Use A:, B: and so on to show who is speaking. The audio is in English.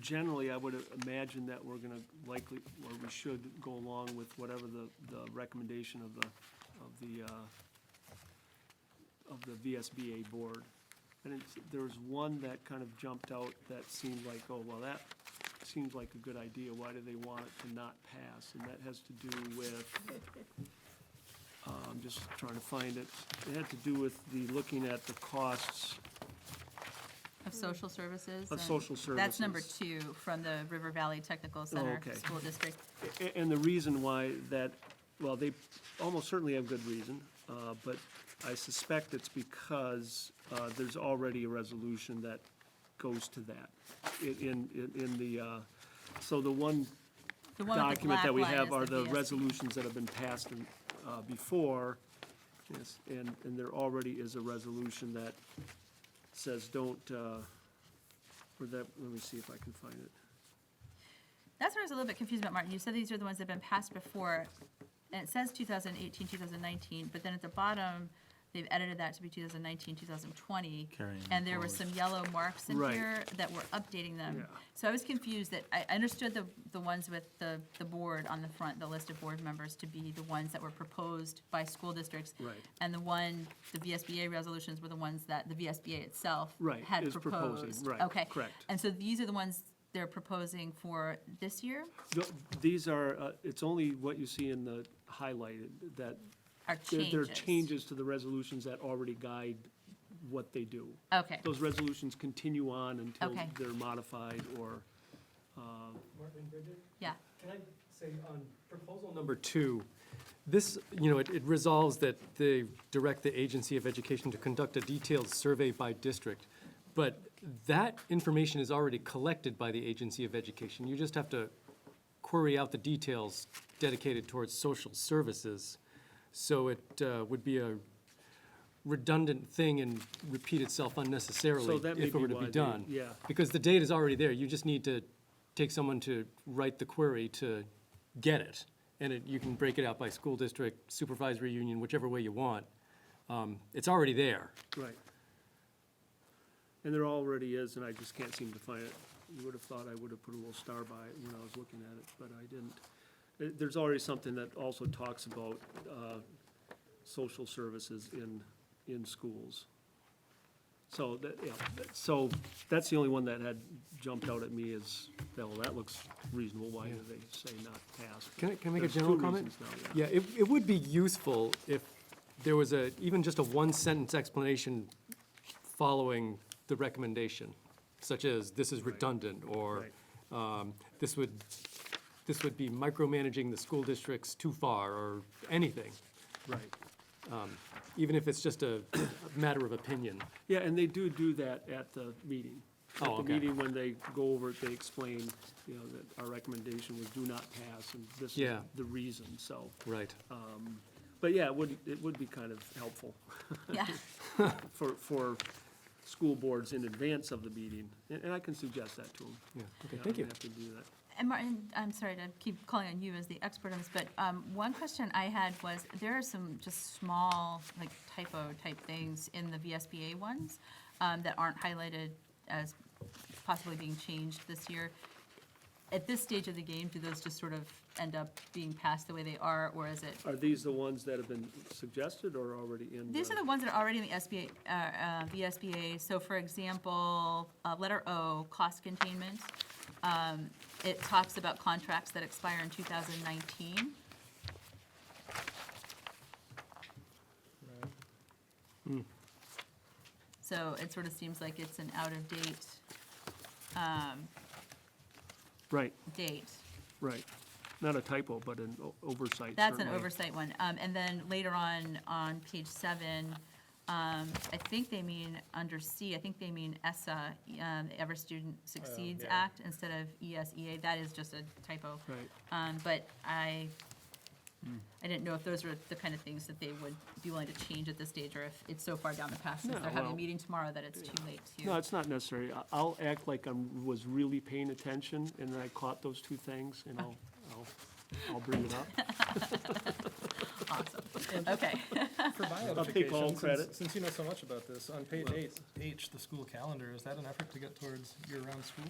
A: generally, I would imagine that we're gonna likely, or we should go along with whatever the, the recommendation of the, of the, uh, of the VSBA board. And it's, there was one that kind of jumped out that seemed like, oh, well, that seems like a good idea, why do they want it to not pass? And that has to do with, uh, I'm just trying to find it, it had to do with the, looking at the costs
B: Of social services.
A: Of
B: and
A: social
B: That's number
A: services.
B: two from the River Valley Technical Center
A: okay.
B: School District.
A: A- And the reason why that, well, they almost certainly have good reason, uh, but I suspect it's because uh, there's already a resolution that goes to that. In, in, in- in the, uh, so the one
B: The one with the
A: document that
B: black
A: we
B: line
A: have
B: is
A: are the
B: VSB.
A: resolutions that have been passed in, uh, before. Yes, and, and there already is a resolution that says don't, uh, or that, let me see if I can find it.
B: That's where I was a little bit confused about, Martin. You said these are the ones that have been passed before, and it says 2018, 2019, but then at the bottom, they've edited that to be 2019, 2020.
C: Carrying
B: And there were
C: forward.
B: some yellow marks in
A: Right.
B: here that were updating them.
A: Yeah.
B: So I was confused that, I I understood the, the ones with the, the board on the front, the list of board members to be the ones that were proposed by school districts.
A: Right.
B: And the one, the VSBA resolutions were the ones that the VSBA itself
A: Right,
B: had
A: is proposing,
B: proposed.
A: right,
B: Okay.
A: correct.
B: And so these are the ones they're proposing for this year?
A: No, These are, uh, it's only what you see in the highlighted, that
B: Are
A: there there are
B: changes?
A: changes to the resolutions that already guide what they do.
B: Okay,
A: Those resolutions continue on until
B: Okay.
A: they're modified or, uh,
D: Martin Bridget,
B: yeah.
D: can I say on proposal number two, this, you know, it it resolves that they direct the Agency of Education to conduct a detailed survey by district. But that information is already collected by the Agency of Education. You just have to query out the details dedicated towards social services. So it uh, would be a redundant thing and repeat itself unnecessarily
A: so that may be
D: if it
A: why
D: were to
A: they,
D: be done.
A: yeah.
D: Because the data's already there, you just need to take someone to write the query to get it. And it, you can break it out by school district, supervisory union, whichever way you want. Um, It's already there.
A: Right. And there already is, and I just can't seem to find it. You would have thought I would have put a little star by it when I was looking at it, but I didn't. There- There's already something that also talks about uh, social services in, in schools. So that, yeah, that- so that's the only one that had jumped out at me is, well, that looks reasonable. Why do they say not pass?
D: Can I, can I make a
A: There's two
D: general comment?
A: reasons now,
D: Yeah, it, it would be useful if there was a, even just a one-sentence explanation following the recommendation, such as, this is
A: Right.
D: redundant, or,
A: Right.
D: um, this would, this would be micromanaging the school districts too far, or anything.
A: Right.
D: even if it's just a matter of opinion.
A: Yeah, and they do do that at the meeting. At
D: Oh,
A: the
D: okay.
A: meeting, when they go over it, they explain, you know, that our recommendation was do not pass, and this is
D: Yeah.
A: the reason, so.
D: Right.
A: Oh. But yeah, it would, it would be kind of helpful
B: Yeah,
A: for, for school boards in advance of the meeting, and, and I can suggest that to them.
D: Yeah, okay, thank you.
A: have to do that.
B: and Martin, I'm sorry to keep calling on you as the expert on this, but um, one question I had was, there are some just small, like typo type things in the VSBA ones um, that aren't highlighted as possibly being changed this year. At this stage of the game, do those just sort of end up being passed the way they are, or is it?
A: Are these the ones that have been suggested or already in?
B: These are the ones that are already in the SBA, uh, uh, VSBA, so for example, uh, letter O, cost containment. um, It talks about contracts that expire in two thousand nineteen. So it sort of seems like it's an out-of-date, um,
A: Right,
B: date.
A: right. Not a typo, but an o- oversight.
B: That's an
A: certainly.
B: oversight one. Um, and then later on, on page seven, um, I think they mean, under C, I think they mean ESSA, um, Ever Student Succeeds
A: Oh,
D: yeah.
B: Act, instead of ESEA. That is just a typo.
A: Right.
B: Um, but I, I didn't know if those were the kind of things that they would be willing to change at this stage, or if it's so far down the path, since
A: No,
B: they're having a
A: well,
B: meeting tomorrow, that it's too late to.
A: No, it's not necessary. I- I'll act like I am was really paying attention, and then I caught those two things, and I'll, I'll, I'll bring it up.
B: Okay,
C: For my
A: I'll take all
C: edification,
A: credit.
C: since, since you know so much about this, on page eight, H, the school calendar, is that an effort to get towards year-round school?